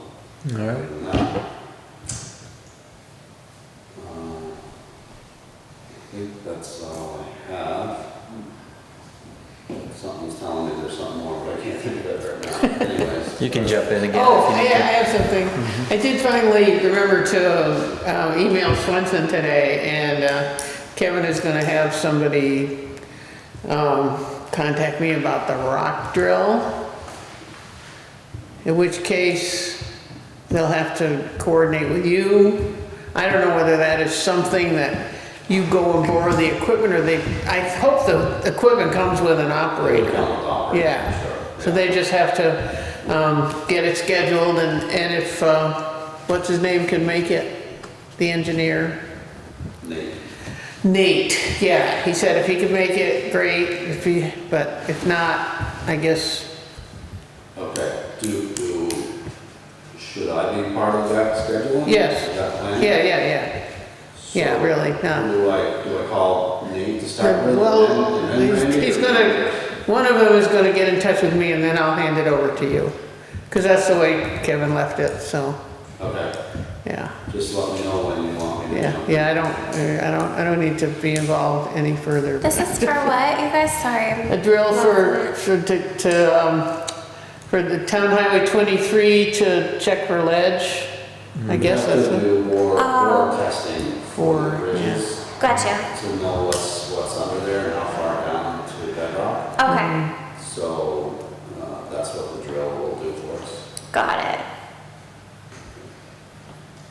All right. and that. Um, I think that's all I have. Something's telling me there's something more, but I can't think of it right now. Anyways. You can jump in again Oh, if you need I I to. Mm-hmm. have something. I did finally remember to uh, email Swenson today, and uh, Kevin is gonna have somebody um, contact me about the rock drill. In which case, they'll have to coordinate with you. I don't know whether that is something that you go and borrow the equipment, or they, I hope the equipment comes with an operator. Yeah, so they just have to um, get it scheduled and, and if, uh, what's his name can make it, the engineer? Nate, Nate, yeah, he said if he could make it, great, if he, but if not, I guess, okay, do, do, should I be part of that schedule? Yes. That plan? yeah, yeah, yeah. yeah, So really, yeah. Who do I, do I call Nate to start with? and Well, then- and then he's, he's Randy? gonna, one of them is gonna get in touch with me and then I'll hand it over to you. Cause that's the way Kevin left it, so, Okay, yeah. just let me know when you want me to. Yeah, jump in. yeah, I don't, uh, I don't, I don't need to be involved any further. This is for what, you guys? Sorry. A I'm- drill for, for, to, to, um, for the town highway twenty-three to check for ledge. I guess Have that's to what, do more, more Oh. testing For, for the bridges Gotcha. to know what's, what's under there and how far down to bedrock. Okay, Mm-hmm. So, uh, that's what the drill will do for us. got it.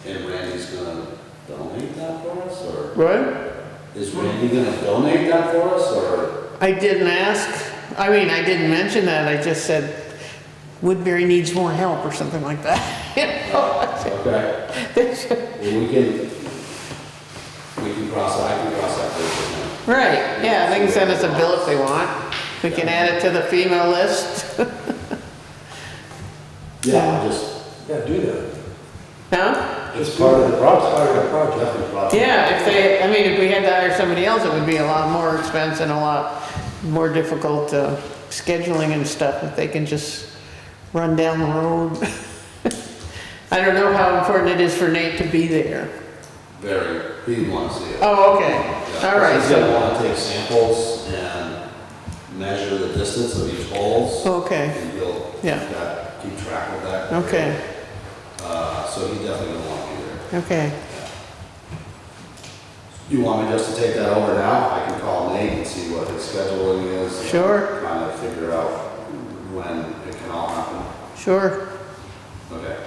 And Randy's gonna donate that for us, or right? is Randy gonna donate that for us, or? I didn't ask, I mean, I didn't mention that, I just said Woodbury needs more help or something like that. You know? Okay, well, we can, we can cross, I can cross that bridge Right, yeah, they can send us a bill if they want. We can add it to the FEMA list. now. Yeah, just, Yeah, do that. No? it's part of the project, Part of the project. definitely project. Yeah, if they, I mean, if we had to hire somebody else, it would be a lot more expense and a lot more difficult uh, scheduling and stuff, if they can just run down the road. I don't know how important it is for Nate to be there. Very, he wants to see it. Oh, okay, all right, He's so, gonna wanna take samples and measure the distance of each holes. Oh, okay, And he'll keep Yeah. that, keep track of that. okay, Uh, so he definitely gonna want to be there. okay. You want me just to take that over now? I can call Nate and see what his scheduling is. and Sure. Kind of figure out when it can all happen. Sure. Okay.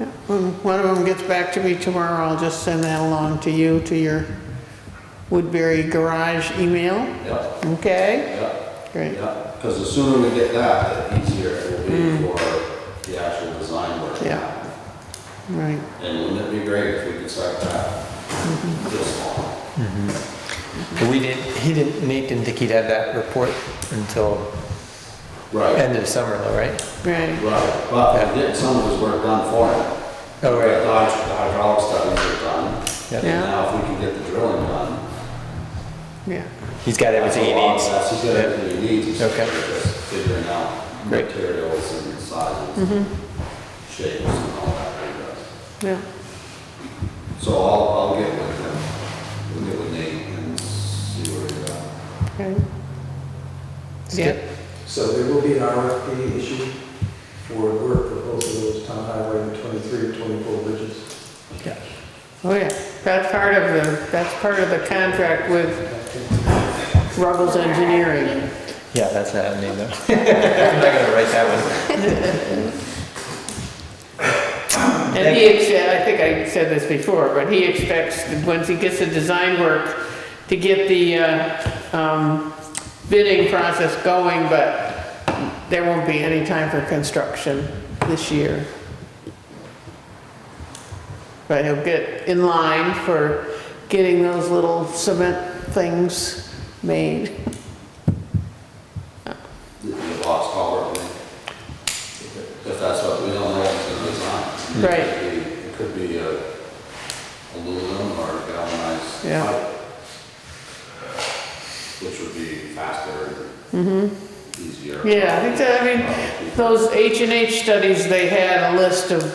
Yeah, When one of them gets back to me tomorrow, I'll just send that along to you, to your Woodbury Garage email, Yep, okay? yep, Great, yep. Because the sooner we get that, the easier it will be for the actual design work. Mm. Yeah. right. And wouldn't it be great if we could start that Mm-hmm. this fall? But We didn't, he didn't, Nate didn't think he'd have that report until Right, end of summer though, right? Right, right. But we did some of his work done for him. Oh, The right. hyd- the hydraulic studies are done. Yeah. Yeah. And now if we can get the drilling done, yeah, He's got everything he That's a lot. needs. That's just Yeah. everything he needs, it's Okay. just figuring out Great. Mm-hmm. materials and sizes and shapes and all that kind of stuff. yeah. So I'll, I'll get with him, we'll get with Nate and see where we're at. Okay. good. Yep. So there will be an RFP issued for work for both of those town highway and 23 and 24 bridges. Yeah. Oh, yeah, that's part of the, that's part of the contract with Ruggles Engineering. Yeah, that's not happening though. I'm not gonna write that And he, ex- I think I said this before, but he expects, that once he gets the design work, to get the uh, um, bidding process going, but there won't be any time for construction this year. But he'll get in line for getting those little cement things made. The- The box culvert, thing. if that's what, we don't know what's gonna design. Right. It could be uh, a aluminum or galvanized Yeah. pipe, which would be faster and easier. Mm-hmm. Uh, Yeah, I think that- I mean, Those H and H studies, they had a list of